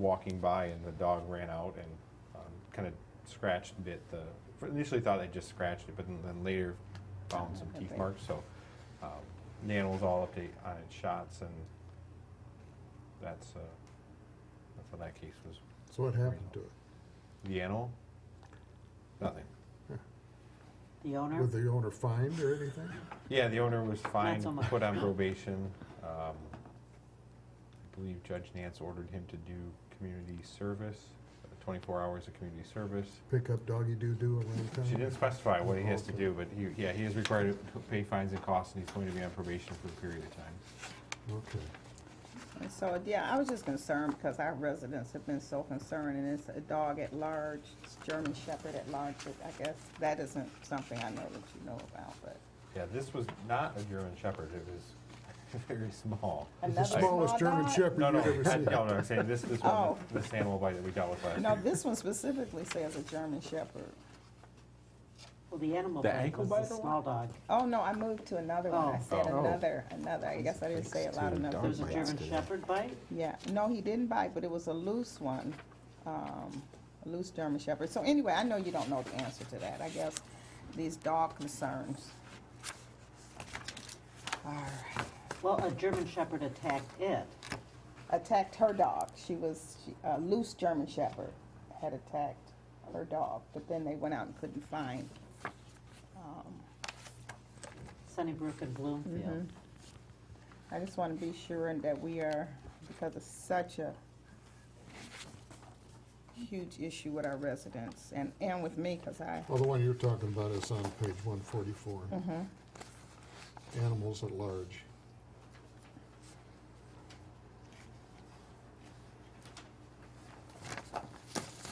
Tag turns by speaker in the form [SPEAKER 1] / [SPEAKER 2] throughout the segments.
[SPEAKER 1] walking by and the dog ran out and um, kind of scratched and bit the. Initially thought they just scratched it, but then, then later found some teeth
[SPEAKER 2] Okay.
[SPEAKER 1] marks. So um, the animal's all up to date on its shots, and that's uh, that's how that case was.
[SPEAKER 3] So what happened to it?
[SPEAKER 1] The animal, nothing.
[SPEAKER 2] The owner?
[SPEAKER 3] Was the owner fined or anything?
[SPEAKER 1] Yeah, the owner was fined,
[SPEAKER 2] so much.
[SPEAKER 1] put on probation. Um, I believe Judge Nance ordered him to do community service, uh, 24 hours of community service.
[SPEAKER 3] Pick up doggy doo-doo around town?
[SPEAKER 1] She didn't specify what he has to do, but he, yeah, he is required to pay fines and costs, and he's going to be on probation for a period of time.
[SPEAKER 3] Okay.
[SPEAKER 4] And So, yeah, I was just concerned because our residents have been so concerned, and it's a dog at large, it's German Shepherd at large, but I guess that isn't something I know that you know about, but.
[SPEAKER 1] Yeah, this was not a German Shepherd, it was very small.
[SPEAKER 3] It's
[SPEAKER 4] Another
[SPEAKER 3] the
[SPEAKER 4] small
[SPEAKER 3] smallest German
[SPEAKER 4] dog?
[SPEAKER 3] Shepherd
[SPEAKER 1] No,
[SPEAKER 3] you've
[SPEAKER 1] no,
[SPEAKER 3] ever
[SPEAKER 1] I-
[SPEAKER 3] seen.
[SPEAKER 1] no, no, I'm saying this, this one,
[SPEAKER 4] Oh.
[SPEAKER 1] this animal bite that we dealt with last
[SPEAKER 4] No,
[SPEAKER 1] week.
[SPEAKER 4] this one specifically says a German Shepherd.
[SPEAKER 2] Well, the animal
[SPEAKER 1] The
[SPEAKER 2] bite
[SPEAKER 1] ankle
[SPEAKER 2] was
[SPEAKER 1] bite
[SPEAKER 2] the
[SPEAKER 1] or what?
[SPEAKER 2] small dog.
[SPEAKER 4] Oh, no, I moved to another one. I
[SPEAKER 2] Oh.
[SPEAKER 4] said
[SPEAKER 1] Oh.
[SPEAKER 4] another, another. I guess I didn't say it loud
[SPEAKER 5] Thanks to
[SPEAKER 4] enough.
[SPEAKER 5] dog
[SPEAKER 2] There's a
[SPEAKER 5] bites
[SPEAKER 2] German
[SPEAKER 5] today.
[SPEAKER 2] Shepherd bite?
[SPEAKER 4] Yeah, no, he didn't bite, but it was a loose one, um, a loose German Shepherd. So anyway, I know you don't know the answer to that. I guess these dog concerns. All right.
[SPEAKER 2] Well, a German Shepherd attacked it.
[SPEAKER 4] Attacked her dog. She was she, a loose German Shepherd had attacked her dog, but then they went out and couldn't find. Um,
[SPEAKER 2] Sunnybrook and Bloomfield.
[SPEAKER 4] I just want to be sure that we are, because it's such a huge issue with our residents and, and with me, because I
[SPEAKER 3] Well, the one you're talking about is on page one forty-four.
[SPEAKER 4] Mm-hmm.
[SPEAKER 3] Animals at large.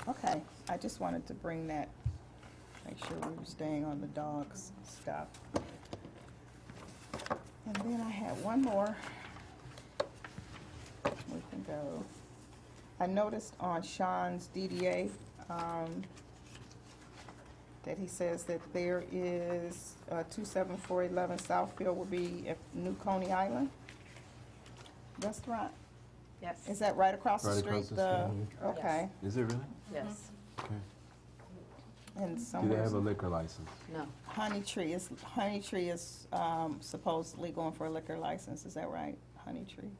[SPEAKER 4] Okay, I just wanted to bring that, make sure we were staying on the dogs stuff. And then I had one more. We can go. I noticed on Sean's DDA, um, that he says that there is, uh, two seven four eleven Southfield will be at New Coney Island Restaurant.
[SPEAKER 6] Yes.
[SPEAKER 4] Is that right across the
[SPEAKER 5] Right
[SPEAKER 4] street?
[SPEAKER 5] across the
[SPEAKER 4] The- Okay,
[SPEAKER 5] Is it really?
[SPEAKER 6] Yes.
[SPEAKER 5] Okay.
[SPEAKER 4] and
[SPEAKER 5] Do
[SPEAKER 4] somewhere.
[SPEAKER 5] they have a liquor license?
[SPEAKER 6] No.
[SPEAKER 4] Honey Tree is, Honey Tree is um, supposedly going for a liquor license, is that right? Honey Tree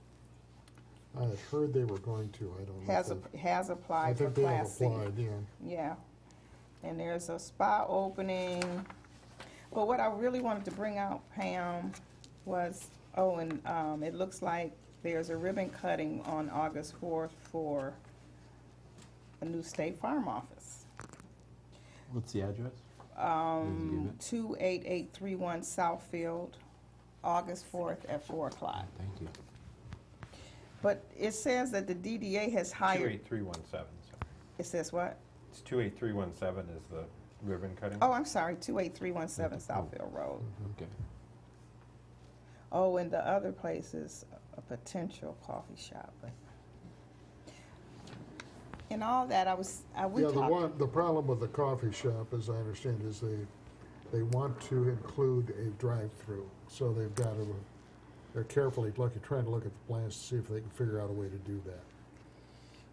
[SPEAKER 3] I had heard they were going to, I don't know. if
[SPEAKER 4] has,
[SPEAKER 3] they-
[SPEAKER 4] app- has
[SPEAKER 3] I
[SPEAKER 4] applied for
[SPEAKER 3] think they have
[SPEAKER 4] Class C.
[SPEAKER 3] applied, yeah.
[SPEAKER 4] Yeah. And there's a spa opening. But what I really wanted to bring out, Pam, was, oh, and um, it looks like there's a ribbon cutting on August 4th for a new State Farm office.
[SPEAKER 5] What's the address? Did you
[SPEAKER 4] Um,
[SPEAKER 5] get
[SPEAKER 4] 28831 Southfield, August 4th at 4 o'clock.
[SPEAKER 5] Thank you.
[SPEAKER 4] But it says that the DDA has hired,
[SPEAKER 1] 28317, so.
[SPEAKER 4] it says what?
[SPEAKER 1] It's 28317 is the ribbon cutting.
[SPEAKER 4] Oh, I'm sorry, 28317 Southfield Road.
[SPEAKER 5] Okay.
[SPEAKER 4] Oh, and the other place is a potential coffee shop, but. And all that, I was, I, we
[SPEAKER 3] Yeah, the
[SPEAKER 4] talked,
[SPEAKER 3] one, the problem with the coffee shop, as I understand, is they, they want to include a drive-through. So they've got to, they're carefully looking, trying to look at the plans to see if they can figure out a way to do that.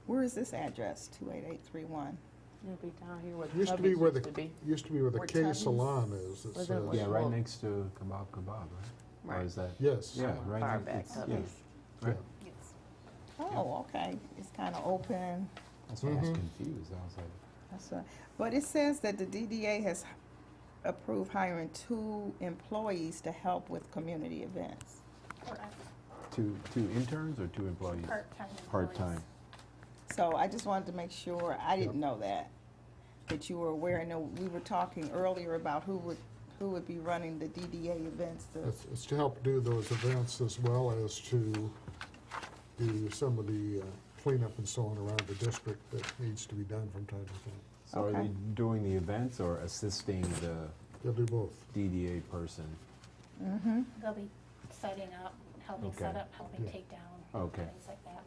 [SPEAKER 4] where is this address, 28831?
[SPEAKER 6] It'll be down here where the
[SPEAKER 3] Used to be where
[SPEAKER 6] Tubby's
[SPEAKER 3] the, used to be where the
[SPEAKER 6] Where
[SPEAKER 3] K
[SPEAKER 6] Tubby's-
[SPEAKER 3] Salon is. uh, that
[SPEAKER 6] where the-
[SPEAKER 3] says-
[SPEAKER 6] Well,
[SPEAKER 5] Yeah, right
[SPEAKER 6] well-
[SPEAKER 5] next to Kebab Kebab, right? Or
[SPEAKER 6] Right.
[SPEAKER 5] is that?
[SPEAKER 3] Yes.
[SPEAKER 5] Yeah, right.
[SPEAKER 6] Far
[SPEAKER 5] next-
[SPEAKER 6] back,
[SPEAKER 5] it's- yeah,
[SPEAKER 6] Tubby's.
[SPEAKER 5] Right.
[SPEAKER 6] Yes.
[SPEAKER 4] Oh, okay, it's kind of open,
[SPEAKER 5] That's why I was
[SPEAKER 3] Mhm.
[SPEAKER 5] confused. I was like,
[SPEAKER 4] that's right. But it says that the DDA has approved hiring two employees to help with community events.
[SPEAKER 5] two, two interns or two employees?
[SPEAKER 7] Part-time
[SPEAKER 5] Part-time.
[SPEAKER 7] employees.
[SPEAKER 4] So I just wanted to make sure, I didn't know that, that you were aware. I know we were talking earlier about who would, who would be running the DDA events. the-
[SPEAKER 3] It's, it's to help do those events as well as to do some of the uh, cleanup and so on around the district that needs to be done from time to time.
[SPEAKER 5] So are
[SPEAKER 4] Okay.
[SPEAKER 5] they doing the events or assisting the
[SPEAKER 3] They'll do both.
[SPEAKER 5] DDA person?
[SPEAKER 7] They'll be setting up, helping set
[SPEAKER 5] Okay.
[SPEAKER 7] up, helping
[SPEAKER 3] Yeah.
[SPEAKER 7] take down,
[SPEAKER 5] Okay.
[SPEAKER 7] things like that.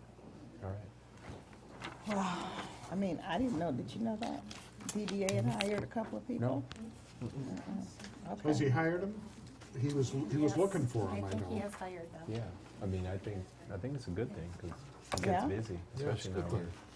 [SPEAKER 5] All right.
[SPEAKER 4] I mean, I didn't know, did you know that? DDA had hired a couple of people?
[SPEAKER 3] Has
[SPEAKER 4] Okay.
[SPEAKER 3] he hired him? He was, he was
[SPEAKER 7] Yes,
[SPEAKER 3] looking for him,
[SPEAKER 7] I
[SPEAKER 3] I
[SPEAKER 7] think he
[SPEAKER 3] know.
[SPEAKER 7] has hired them.
[SPEAKER 5] Yeah, I mean, I think, I think it's a good thing because it
[SPEAKER 4] Yeah?
[SPEAKER 5] gets busy,
[SPEAKER 3] Yeah, it's
[SPEAKER 5] especially
[SPEAKER 3] a good
[SPEAKER 5] now we're
[SPEAKER 3] thing.